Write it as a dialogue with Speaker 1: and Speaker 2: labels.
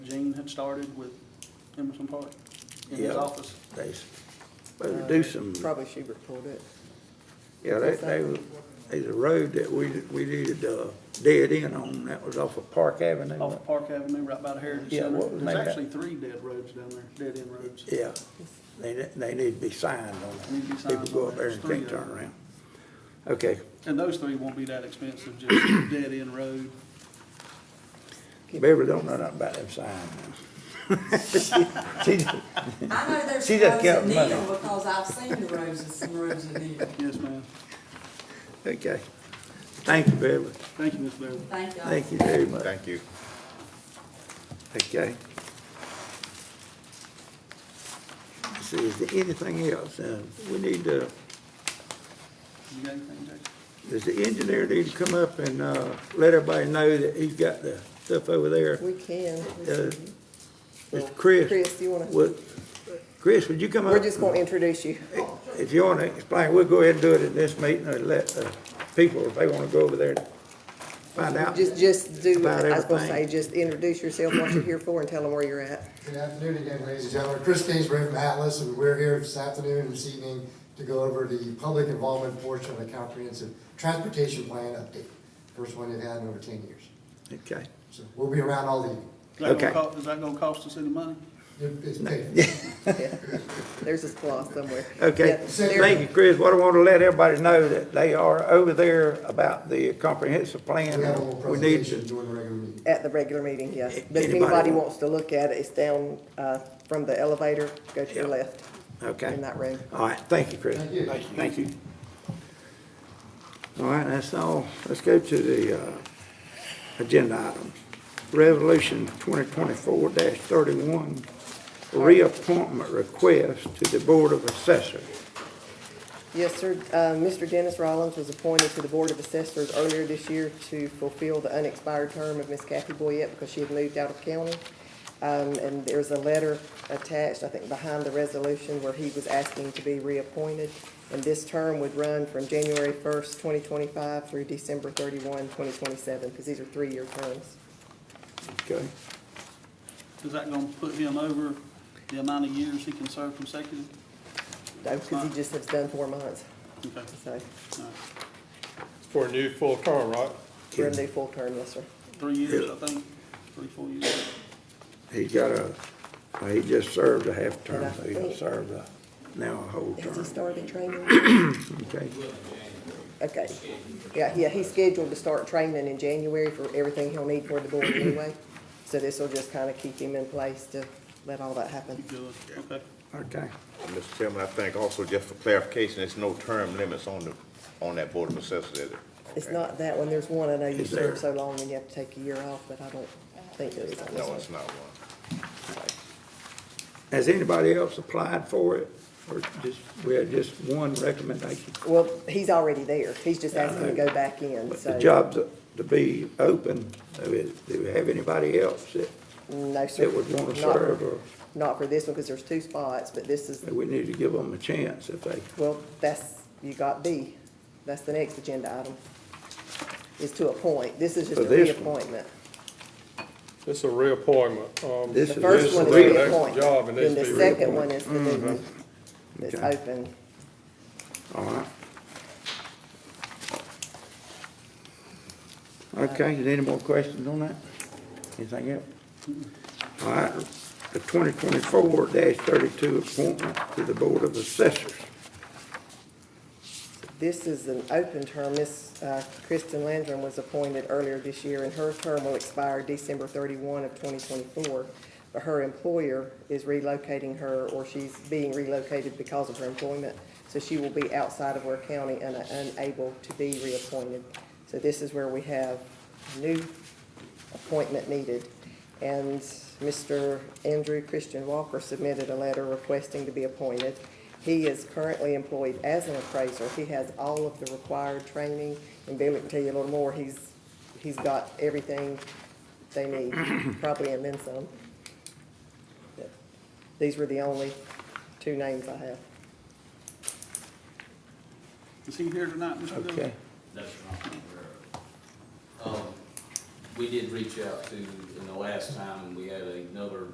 Speaker 1: started with Emerson Park in his
Speaker 2: Yeah.
Speaker 1: office.
Speaker 2: They, they do some,
Speaker 3: Uh, Probably she reported it.
Speaker 2: yeah, they, they, was- there's a road that we, we needed a dead end on, that was off of Park Avenue.
Speaker 1: Off of Park Avenue, right by the Heritage
Speaker 2: Yeah,
Speaker 1: Center.
Speaker 2: what
Speaker 1: There's
Speaker 2: was made that?
Speaker 1: actually three dead roads down there, dead end roads.
Speaker 2: Yeah, they, they need to be signed on
Speaker 1: Need to be
Speaker 2: that.
Speaker 1: signed
Speaker 2: People go
Speaker 1: on that.
Speaker 2: up there and
Speaker 1: There's
Speaker 2: can't
Speaker 1: three of
Speaker 2: turn around. Okay,
Speaker 1: And those three won't be that expensive, just dead end road.
Speaker 2: Beverly don't know nothing about them signs. now. She- she-
Speaker 4: I know there's
Speaker 2: She
Speaker 4: some
Speaker 2: just
Speaker 4: roads
Speaker 2: got
Speaker 4: that kneel
Speaker 2: money.
Speaker 4: because I've seen the roads and some roads that kneel.
Speaker 1: Yes, ma'am.
Speaker 2: Okay, thank you, Beverly,
Speaker 1: Thank you, Ms. Beverly.
Speaker 4: Thank y'all.
Speaker 2: thank you very much.
Speaker 5: Thank you.
Speaker 2: Okay. Let's See, is there anything else? Uh, we need to,
Speaker 1: You got anything, Jason?
Speaker 2: does the engineer need to come up and, uh, let everybody know that he's got the stuff over there?
Speaker 3: We can.
Speaker 2: Uh,
Speaker 3: Well,
Speaker 2: Mr. Chris?
Speaker 3: Chris, you wanna-
Speaker 2: Would, Chris, would you come up?
Speaker 3: We're just gonna introduce you.
Speaker 2: If you wanna explain, we'll go ahead and do it at this meeting and let the people, if they wanna go over there and find out.
Speaker 3: Just, just do,
Speaker 2: About
Speaker 3: I was gonna say,
Speaker 2: everything.
Speaker 3: just introduce yourself, what you're here for, and tell them where you're at.
Speaker 6: Good afternoon again, ladies and gentlemen. Chris Kingsbury from Atlas, and we're here this afternoon and this evening to go over the public involvement portion of the comprehensive transportation plan update. First one they've had in over ten years.
Speaker 2: Okay.
Speaker 6: So we'll be around all evening.
Speaker 1: Is that gonna
Speaker 2: Okay.
Speaker 1: co- Is that gonna cost us any money?
Speaker 6: It- It's paid.
Speaker 3: Yeah. There's this clause somewhere.
Speaker 2: Okay,
Speaker 3: Yeah, there-
Speaker 2: thank you, Chris. What I want to let everybody know that they are over there about the comprehensive plan.
Speaker 6: We have a little
Speaker 2: We need
Speaker 6: presentation
Speaker 2: to,
Speaker 6: during the regular meeting.
Speaker 3: At the regular meeting, yes. But if
Speaker 2: Anybody
Speaker 3: anybody
Speaker 2: want-
Speaker 3: wants to look at it, it's down, uh, from the elevator, go to your
Speaker 2: Yeah.
Speaker 3: left
Speaker 2: okay.
Speaker 3: in that room.
Speaker 2: All right, thank you, Chris.
Speaker 6: Thank you.
Speaker 2: Thank you. All right, that's all. Let's go to the, uh, agenda items. Resolution twenty twenty-four thirty-one, reappointment request to the Board of Assessors.
Speaker 3: Yes, sir. Uh, Mr. Dennis Rollins was appointed to the Board of Assessors earlier this year to fulfill the unexpired term of Miss Kathy Boyette because she had moved out of county. Um, And there's a letter attached, I think, behind the resolution where he was asking to be reappointed. And this term would run from January 1st, 2025 through December 31, 2027, because these are three-year terms.
Speaker 2: Okay,
Speaker 1: Is that gonna put him over the amount of years he can serve consecutive?
Speaker 3: Because he just has done four months,
Speaker 1: Okay,
Speaker 3: so
Speaker 1: all right.
Speaker 7: For a new full term, right?
Speaker 3: we're in the full term, yes, sir.
Speaker 1: Three years, I think, three, four years.
Speaker 2: he's got a, well, he just served a half term,
Speaker 3: And I
Speaker 2: so he'll
Speaker 3: think-
Speaker 2: serve a, now a whole
Speaker 3: Has he
Speaker 2: term.
Speaker 3: started training?
Speaker 2: Okay,
Speaker 3: Okay, yeah, yeah, he's scheduled to start training in January for everything he'll need for the board anyway. So this will just kind of keep him in place to let all that happen.
Speaker 1: Good, okay.
Speaker 2: okay.
Speaker 5: Mr. Chairman, I think also just for clarification, there's no term limits on the, on that Board of Assessors, is there?
Speaker 3: It's not that one, there's one, I know you
Speaker 2: Is there?
Speaker 3: served so long and you have to take a year off, but I don't think there is on this
Speaker 5: No,
Speaker 3: one.
Speaker 5: it's not one.
Speaker 2: Has anybody else applied for it, or just, we had just one recommendation?
Speaker 3: Well, he's already there, he's just asking to go back in,
Speaker 2: But the
Speaker 3: so,
Speaker 2: jobs to be open, I mean, do we have anybody else that,
Speaker 3: no, sir.
Speaker 2: that would want to
Speaker 3: not-
Speaker 2: serve, or
Speaker 3: Not for this one, because there's two spots, but this is,
Speaker 2: we need to give them a chance if they,
Speaker 3: well, that's, you got B, that's the next agenda item, is to appoint, this is just
Speaker 2: For
Speaker 3: a
Speaker 2: this one.
Speaker 3: reappointment.
Speaker 7: It's a reappointment. Um,
Speaker 2: This
Speaker 3: The
Speaker 2: is-
Speaker 3: first
Speaker 2: this
Speaker 3: one
Speaker 2: is
Speaker 3: is
Speaker 2: the
Speaker 7: next
Speaker 3: reappoint,
Speaker 7: job, and
Speaker 3: then
Speaker 7: this
Speaker 3: the
Speaker 7: be
Speaker 3: second one is the new one that's
Speaker 2: Mm-hmm. Okay.
Speaker 3: open.
Speaker 2: all right? Okay, is there any more questions on that? Anything else? All right, the twenty twenty-four thirty-two appointment to the Board of Assessors.
Speaker 3: This is an open term. Miss uh, Kristen Landrum was appointed earlier this year, and her term will expire December thirty-one of twenty twenty-four. But her employer is relocating her, or she's being relocated because of her employment, so she will be outside of Ware County and unable to be reappointed. So this is where we have new appointment needed. And Mr. Andrew Christian Walker submitted a letter requesting to be appointed. He is currently employed as an appraiser. He has all of the required training, and Billy can tell you a little more. He's, he's got everything they need, probably and then some. But These were the only two names I have.
Speaker 1: Is he here tonight, Mr. Dillon?
Speaker 2: Okay,
Speaker 8: That's what I'm aware of. Um, We did reach out to, in the last time, we had another